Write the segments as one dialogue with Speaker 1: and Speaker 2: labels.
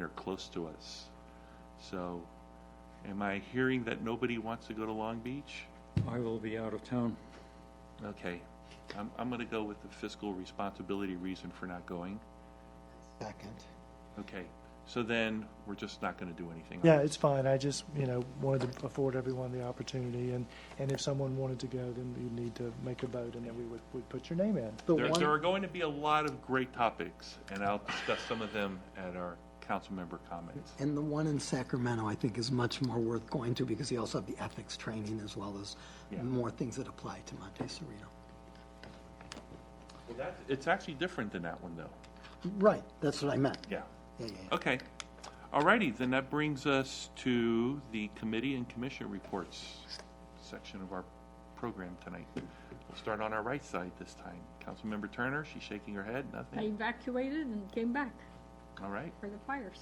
Speaker 1: or close to us. So, am I hearing that nobody wants to go to Long Beach?
Speaker 2: I will be out of town.
Speaker 1: Okay, I'm, I'm gonna go with the fiscal responsibility reason for not going.
Speaker 3: Second.
Speaker 1: Okay, so then, we're just not gonna do anything. on
Speaker 4: Yeah,
Speaker 1: it.
Speaker 4: it's fine. I just, you know, wanted to afford everyone the opportunity, and, and if someone wanted to go, then you'd need to make a vote, and then we would, would put your name in.
Speaker 3: The
Speaker 1: There, there are
Speaker 3: one,
Speaker 1: going to be a lot of great topics, and I'll discuss some of them at our council member comments.
Speaker 3: and the one in Sacramento, I think, is much more worth going to because you also have the ethics training as well as
Speaker 1: Yeah.
Speaker 3: more things that apply to Monte Sereno.
Speaker 1: Well, that's, it's actually different than that one, though.
Speaker 3: Right, that's what I meant.
Speaker 1: Yeah.
Speaker 3: Yeah, yeah, yeah.
Speaker 1: Okay. Alrighty, then that brings us to the committee and commission reports section of our program tonight. We'll start on our right side this time. Councilmember Turner, she's shaking her head,
Speaker 5: I
Speaker 1: nothing.
Speaker 5: evacuated and came back
Speaker 1: All right,
Speaker 5: for the fires.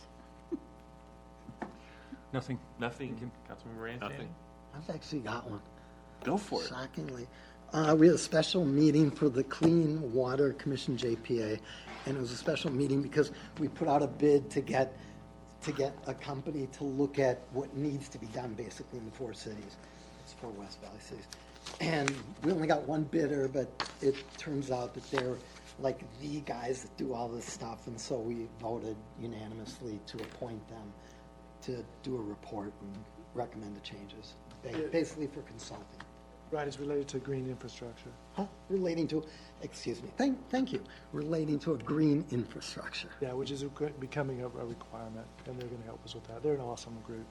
Speaker 2: Nothing.
Speaker 1: nothing. Councilmember Anthony?
Speaker 3: I've actually got one.
Speaker 1: Go for it.
Speaker 3: Shockingly. Uh, we had a special meeting for the Clean Water Commission JPA, and it was a special meeting because we put out a bid to get, to get a company to look at what needs to be done basically in the four cities. It's four West Valley cities. And we only got one bidder, but it turns out that they're like the guys that do all this stuff, and so we voted unanimously to appoint them to do a report and recommend the changes, ba- basically for consulting
Speaker 4: Right, it's related to green infrastructure.
Speaker 3: huh, relating to, excuse me, thank, thank you, relating to a green infrastructure.
Speaker 4: Yeah, which is a gr- becoming a a requirement, and they're going to help us with that. They're an awesome group.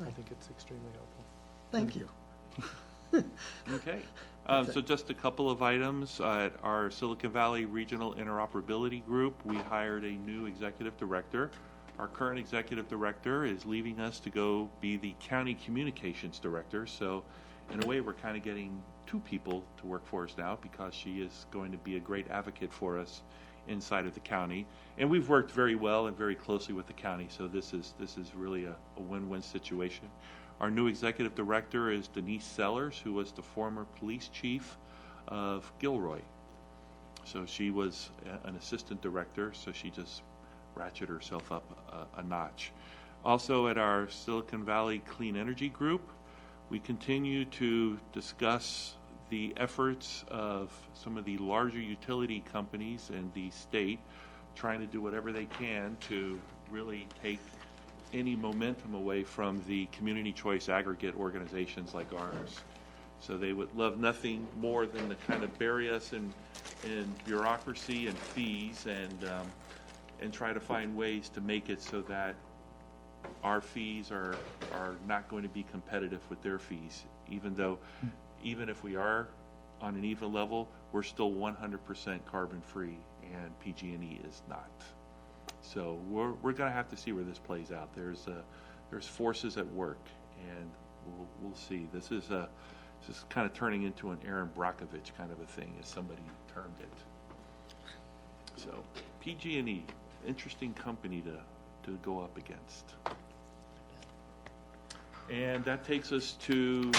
Speaker 4: I think it's extremely helpful.
Speaker 3: Thank you.
Speaker 1: Okay. Uh, so just a couple of items. Uh, at our Silicon Valley Regional Interoperability Group, we hired a new executive director. Our current executive director is leaving us to go be the county communications director. So in a way, we're kind of getting two people to work for us now because she is going to be a great advocate for us inside of the county. And we've worked very well and very closely with the county, so this is, this is really a, a win-win situation. Our new executive director is Denise Sellers, who was the former police chief of Gilroy. So she was a- an assistant director, so she just ratcheted herself up a, a notch. Also, at our Silicon Valley Clean Energy Group, we continue to discuss the efforts of some of the larger utility companies in the state trying to do whatever they can to really take any momentum away from the community choice aggregate organizations like ours. So they would love nothing more than to kind of bury us in, in bureaucracy and fees and, um, and try to find ways to make it so that our fees are, are not going to be competitive with their fees, even though, even if we are on an even level, we're still one hundred percent carbon-free and PG&E is not. So we're, we're gonna have to see where this plays out. There's, uh, there's forces at work, and we'll, we'll see. This is a, this is kind of turning into an Aaron Brockovich kind of a thing, as somebody termed it. So, PG&E, E, interesting company to, to go up against. And that takes us to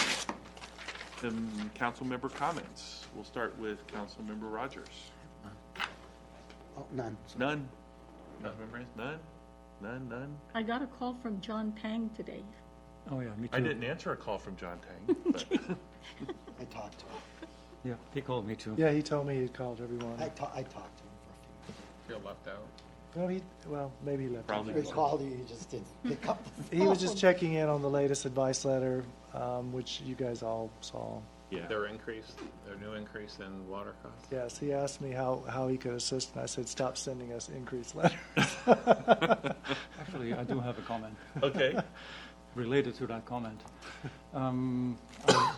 Speaker 1: the council member comments. We'll start with council member Rogers.
Speaker 3: Oh, none.
Speaker 1: None. Councilmember Reyes, none? None, none?
Speaker 5: I got a call from John Pang today.
Speaker 2: Oh, yeah, me too.
Speaker 1: I didn't e- answer a call from John Tang, but
Speaker 3: I talked to him.
Speaker 2: Yeah, he called me too.
Speaker 4: Yeah, he told me he called everyone.
Speaker 3: I ta- I talked to him for a few minutes.
Speaker 4: Well, he, well, maybe he left.
Speaker 1: probably.
Speaker 3: He called you, you just didn't pick up the
Speaker 4: He was just
Speaker 3: phone.
Speaker 4: checking in on the latest advice letter, um, which you guys all saw.
Speaker 1: Yeah.
Speaker 6: Their increase, their new increase in water costs?
Speaker 4: Yes, he asked me how, how he could assist, and I said, stop sending us increased letters.
Speaker 2: Actually, I do have a comment
Speaker 1: Okay.
Speaker 2: related to that comment. Um, a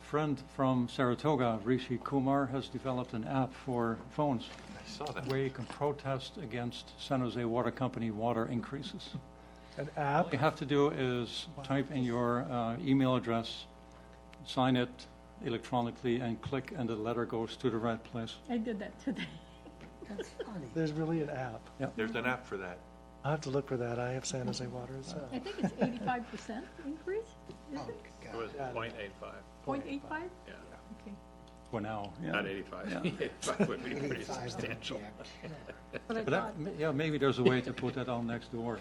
Speaker 2: friend from Saratoga, Rishi Kumar, has developed an app for phones
Speaker 1: I saw that.
Speaker 2: where you can protest against San Jose Water Company water increases.
Speaker 4: An
Speaker 2: All you
Speaker 4: app?
Speaker 2: have to do is type in your uh, email address, sign it electronically, and click, and the letter goes to the right place.
Speaker 5: I did that today.
Speaker 3: That's funny.
Speaker 4: There's really an app.
Speaker 1: There's an app for that.
Speaker 4: I'll have to look for that. I have San Jose Water as
Speaker 5: I
Speaker 4: well.
Speaker 5: think it's eighty-five percent increase, is
Speaker 3: Oh,
Speaker 5: it?
Speaker 3: God.
Speaker 6: It was
Speaker 4: Yeah.
Speaker 6: 0.85.
Speaker 5: Point eight five?
Speaker 6: yeah.
Speaker 5: Okay.
Speaker 2: For now, yeah.
Speaker 6: Not eighty-five. Eighty-five would be pretty
Speaker 3: Eighty-five,
Speaker 6: substantial.
Speaker 3: yeah.
Speaker 5: But I
Speaker 2: But
Speaker 5: thought,
Speaker 2: that, yeah, maybe there's a way to put that on next door.